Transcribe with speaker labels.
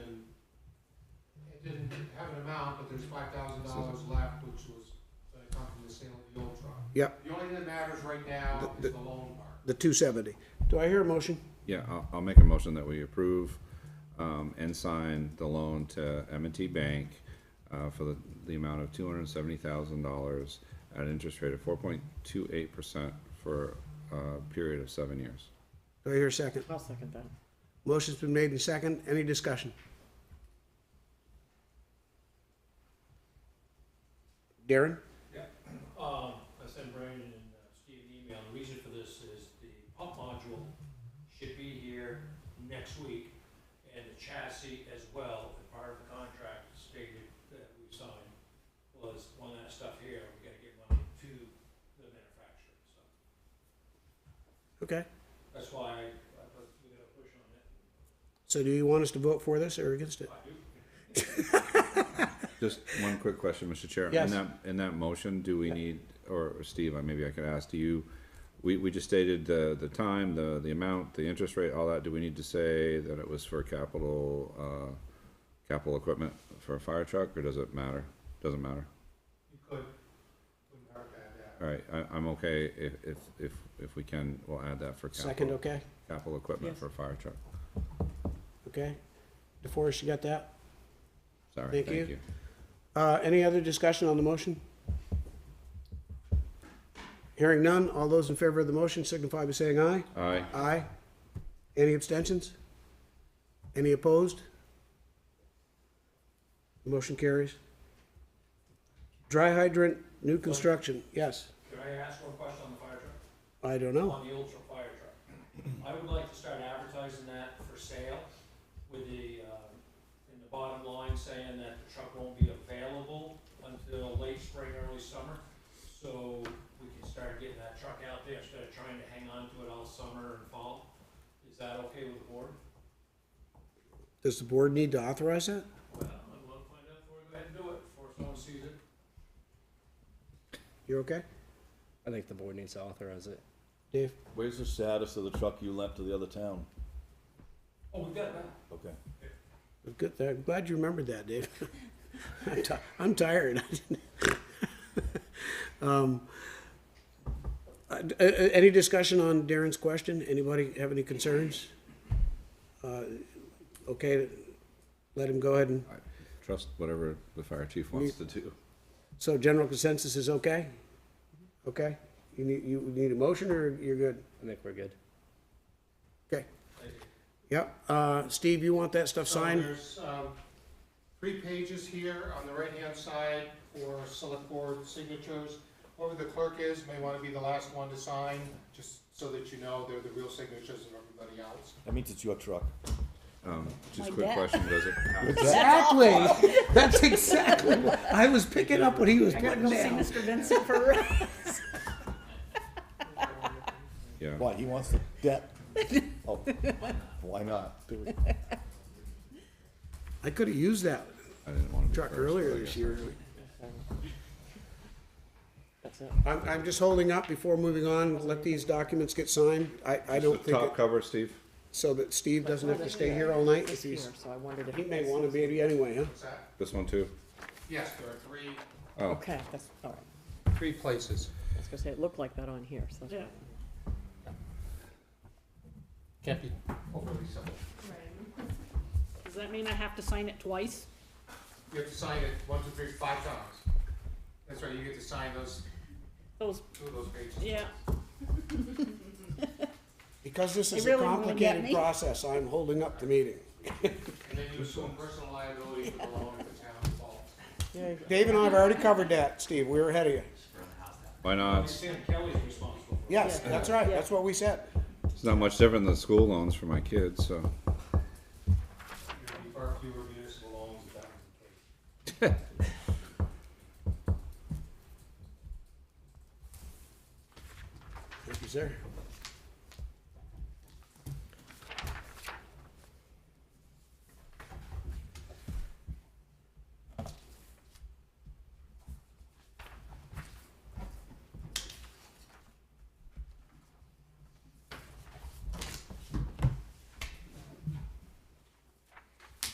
Speaker 1: there's five thousand dollars left, which was uh, come from the sale of the old truck.
Speaker 2: Yep.
Speaker 1: The only thing that matters right now is the loan part.
Speaker 2: the two seventy. Do I hear a motion?
Speaker 3: Yeah, I'll, I'll make a motion that we approve, um, and sign the loan to m and T Bank, uh, for the, the amount of two hundred and seventy thousand dollars at an interest rate of four point two eight percent for uh, a period of seven years.
Speaker 2: Do I hear a second?
Speaker 4: I'll second that.
Speaker 2: Motion's been made in second. Any discussion? Darren?
Speaker 5: Um, I sent Brandon and uh, Steve an email, the reason for this is the pump module should be here next week, and the chassis as well, and part of the contract stated that we signed was when that stuff here, we gotta get money to the manufacturer, so.
Speaker 2: Okay.
Speaker 5: That's why I, I put, we gotta push on it.
Speaker 2: So do you want us to vote for this or against it?
Speaker 5: I do,
Speaker 3: Just one quick question, Mr. Chair.
Speaker 2: Yes.
Speaker 3: In that, in that motion, do we need, or or Steve, I- maybe I could ask, do you, we, we just stated the, the time, the, the amount, the interest rate, all that. Do we need to say that it was for capital, uh, capital equipment for a fire truck, or does it matter? Doesn't matter.
Speaker 1: You could, wouldn't hurt to have that.
Speaker 3: All right, I, I'm okay if, if, if, if we can, we'll add that for
Speaker 2: Second,
Speaker 3: capital,
Speaker 2: okay?
Speaker 3: capital equipment
Speaker 4: Yes.
Speaker 3: for a fire truck.
Speaker 2: Okay. DeForest, you got that?
Speaker 3: Sorry,
Speaker 2: Thank
Speaker 3: thank
Speaker 2: you.
Speaker 3: you.
Speaker 2: Uh, any other discussion on the motion? Hearing none, all those in favor of the motion signify by saying aye.
Speaker 3: Aye,
Speaker 2: Aye. Any abstentions? Any opposed? Motion carries. Dry hydrant, new construction, yes.
Speaker 5: could I ask one question on the fire truck?
Speaker 2: I don't know.
Speaker 5: on the Ultra Fire Truck. I would like to start advertising that for sale with the, um, in the bottom line saying that the truck won't be available until late spring, early summer. So we can start getting that truck out there instead of trying to hang on to it all summer and fall. Is that okay with the board?
Speaker 2: Does the board need to authorize that?
Speaker 5: Well, I want to find out before we go ahead and do it, before someone sees it.
Speaker 2: You're okay?
Speaker 6: I think the board needs to authorize it.
Speaker 2: Dave?
Speaker 7: Where's the status of the truck you lent to the other town?
Speaker 5: Oh, we got that.
Speaker 7: Okay.
Speaker 2: Good, I'm glad you remembered that, Dave. I'm ti- I'm tired. Um, uh, d- uh, uh, Any discussion on Darren's question? Anybody have any concerns? Uh, Okay, let him go ahead and,
Speaker 3: trust whatever the fire chief wants to do.
Speaker 2: so general consensus is okay? Okay? You need, you need a motion or you're good?
Speaker 6: I think we're good.
Speaker 2: Okay. Yep, uh, Steve, you want that stuff
Speaker 1: So
Speaker 2: signed?
Speaker 1: There's, um, three pages here on the right-hand side for select board signatures. Whoever the clerk is may wanna be the last one to sign, just so that you know they're the real signatures of everybody else.
Speaker 7: That means it's your truck.
Speaker 3: Um, just a
Speaker 8: Like
Speaker 3: quick
Speaker 8: that.
Speaker 3: question, does it
Speaker 2: Exactly. That's exactly what I was picking up what he was
Speaker 8: I gotta
Speaker 2: putting
Speaker 8: go see
Speaker 2: down.
Speaker 8: Mr. Vincent for real.
Speaker 3: Yeah.
Speaker 7: Why, he wants the debt? Oh, why not?
Speaker 2: I could have used that
Speaker 3: I didn't want to be
Speaker 2: truck
Speaker 3: first,
Speaker 2: earlier
Speaker 3: but I
Speaker 2: this
Speaker 3: guess-
Speaker 2: year.
Speaker 4: That's it.
Speaker 2: I'm, I'm just holding up before moving on, let these documents get signed. I, I
Speaker 3: Just
Speaker 2: don't
Speaker 3: the
Speaker 2: think,
Speaker 3: top
Speaker 2: it-
Speaker 3: cover, Steve?
Speaker 2: so that Steve doesn't have to stay here all night.
Speaker 4: It's here, so I wondered if.
Speaker 2: He may want to be anyway, huh?
Speaker 1: Is that,
Speaker 3: This one too?
Speaker 1: yes, there are three,
Speaker 4: Okay, that's, all right.
Speaker 1: three places.
Speaker 4: I was gonna say, it looked like that on here, so. Yeah.
Speaker 1: Can't be overly simple.
Speaker 8: Does that mean I have to sign it twice?
Speaker 1: You have to sign it one, two, three, five times. That's right, you get to sign those,
Speaker 8: Those,
Speaker 1: two of those pages.
Speaker 8: yeah.
Speaker 2: Because this
Speaker 8: They
Speaker 2: is a
Speaker 8: really wanna get
Speaker 2: complicated
Speaker 8: me?
Speaker 2: process, I'm holding up the meeting.
Speaker 1: And then you assume personal liability for the loan if the town falls.
Speaker 2: Dave and I have already covered that, Steve, we were ahead of you.
Speaker 3: Why
Speaker 5: I
Speaker 3: not?
Speaker 5: Sam Kelly's responsible for it.
Speaker 2: Yes, that's right, that's what we said.
Speaker 3: It's not much different than school loans for my kids, so.
Speaker 1: You'd be far fewer municipal loans if that was the case.
Speaker 2: Thank you, sir.